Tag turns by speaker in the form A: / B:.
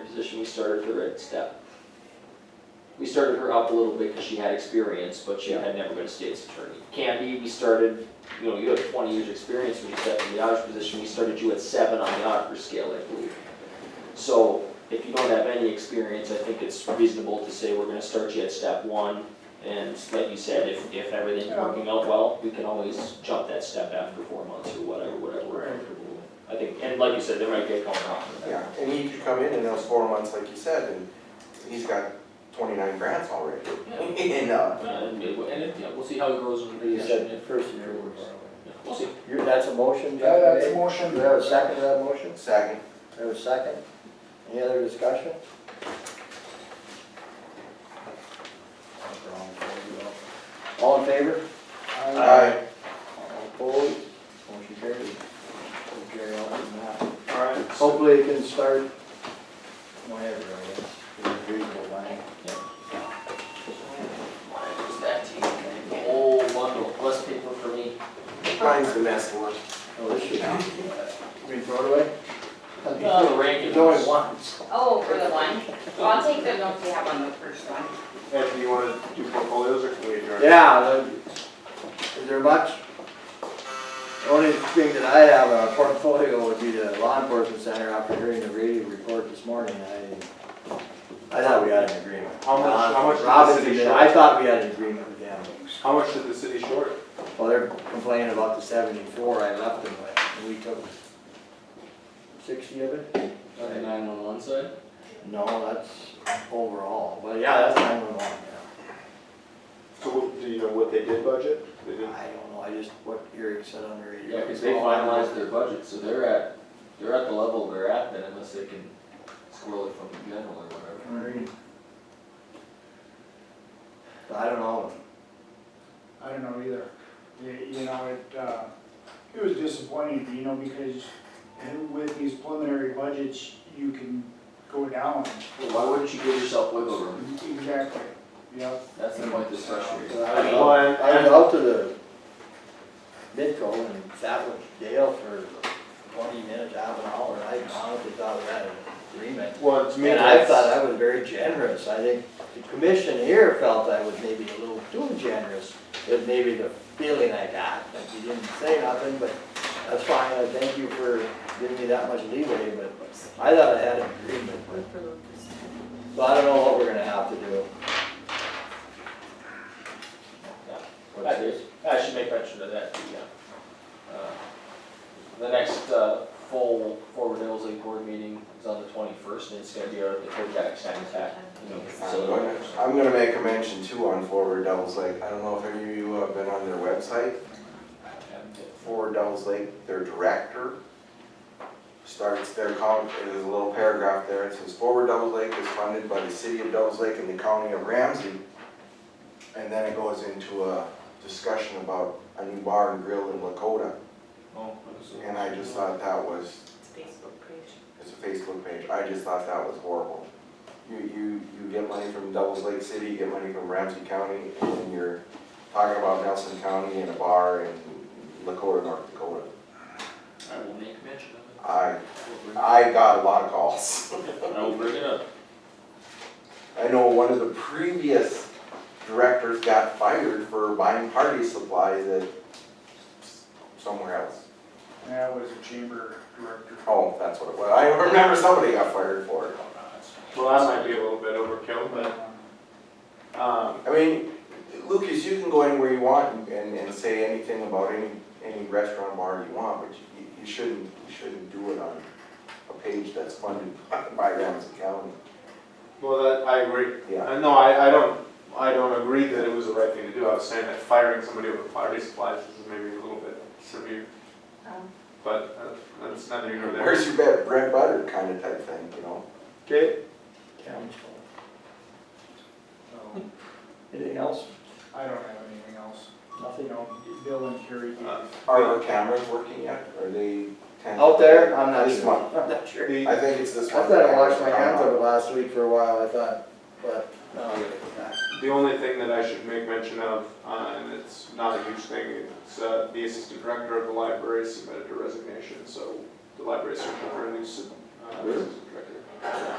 A: position, we started her at step. We started her up a little bit because she had experience, but she had never been a state's attorney. Candy, we started, you know, you have twenty years' experience when you stepped in the auditor position, we started you at seven on the auditor scale, I believe. So if you don't have any experience, I think it's reasonable to say we're gonna start you at step one. And like you said, if, if everything's working out well, we can always jump that step after four months or whatever, whatever we're comfortable with. I think, and like you said, they might get coming off of that.
B: Yeah, and he could come in in those four months, like you said, and he's got twenty-nine grants already. And, uh,
A: Uh, And, it- and, it- yeah, we'll see how it grows in the
C: You
A: year.
C: said first year was.
A: Yeah, We'll see.
C: You, that's a motion,
D: Yeah,
C: Jeff
D: that's a
C: made?
D: motion.
C: Do you have a second to that motion?
B: second,
C: Do you have a second? Any other discussion? All in favor? Uh,
B: aye,
C: All opposed? Motion carried. We'll carry on from that.
A: Alright.
C: Hopefully it can start whenever, I guess, in a reasonable line.
A: Just that team, the whole bundle, less paper for me.
B: mine's the best one.
C: Oh, this should not be thrown away?
A: Uh, the ranking.
C: There's only one, so.
E: Oh, for the one? Well, I'll take the notes we have on the first one.
B: Ed, do you wanna do portfolios or can we adjourn?
C: Yeah, the- is there much? The only thing that I have on portfolio would be the law enforcement center after hearing the radio report this morning, I, I thought we had an agreement.
F: How much, how much
C: Robin
F: did the city
C: did, I
F: short?
C: thought we had an agreement with them.
F: How much did the city short?
C: Well, they're complaining about the seventy-four I left them with, and we took sixty of it?
A: Nine on one side.
C: No, that's overall, but yeah, that's nine-one-one,
F: So what- do you know what they did budget? They
C: yeah.
F: didn't,
C: I don't know, I just, what Eric said on the radio.
A: Yeah, cause they finalized their budget, so they're at, they're at the level they're at then unless they can squirrel it from the general or whatever.
C: I don't know,
D: I don't know either. You- You know, it, uh, it was disappointing, you know, because with these preliminary budgets, you can go down.
A: Why wouldn't you give yourself wiggle room?
D: Exactly, yep.
A: That's the point that's frustrating.
C: I don't
F: Well,
C: know,
F: and-
C: I was out to the Midco and sat with Dale for twenty minutes, half an hour, I honestly thought we had an agreement.
F: well, to me,
C: And I
F: that's-
C: thought I was very generous, I think the commission here felt I was maybe a little too generous, is maybe the feeling I got, like you didn't say nothing, but that's fine, I thank you for giving me that much leeway, but I thought I had an agreement, but So I don't know what we're gonna have to do.
A: What's this? I should make mention of that, too, yeah. Uh, The next uh, full Forward Hills League Board meeting is on the twenty-first, and it's gonna be our, the Kodak Sand Attack. you know,
B: I'm
A: So,
B: gonna- I'm gonna make a mention too on Forward Devils Lake, I don't know if any of you have been on their website, Forward Devils Lake, their director, starts their com, there's a little paragraph there, it says, Forward Devils Lake is funded by the city of Devils Lake and the county of Ramsey. And then it goes into a discussion about a new bar and grill in Lakota, and I just thought that was,
E: It's Facebook page.
B: it's a Facebook page, I just thought that was horrible. You, you, you get money from Devils Lake City, you get money from Ramsey County, and then you're talking about Nelson County and a bar in Lakota, North Dakota.
A: I will make mention of
B: I
A: it.
B: I got a lot of calls.
A: I will bring it up.
B: I know one of the previous directors got fired for buying party supplies at s- somewhere else.
D: That was a chamber director.
B: Oh, that's what it was. I remember somebody got fired for it.
F: well, that might be a little bit overkill, but, um,
B: I mean, Lucas, you can go anywhere you want and, and say anything about any, any restaurant bar you want, but you, you shouldn't, you shouldn't do it on a page that's funded by by Ramsey County.
F: well, that, I agree.
B: Yeah,
F: Uh, No, I, I don't, I don't agree that it was the right thing to do. I was saying that firing somebody over party supplies is maybe a little bit severe, but uh, that's neither here nor there.
B: where's your bread, bread butter kind of type thing, you know?
F: Okay,
C: Council.
D: So,
C: Anything else?
D: I don't have anything else. You
C: Nothing?
D: know, Bill and Carrie gave
F: Uh,
B: Are our cameras working yet? Are they?
C: Out there, I'm not
B: This
C: sure.
B: month.
C: I'm not sure.
F: the-
B: I think it's this
C: I
B: one.
C: thought I washed my hands of it last week for a while, I thought, but, no,
F: The only thing that I should make mention of, uh, and it's not a huge thing, it's uh, the assistant director of the library submitted a resignation, so the library is searching for a new sub- uh,
B: Really?
F: assistant director.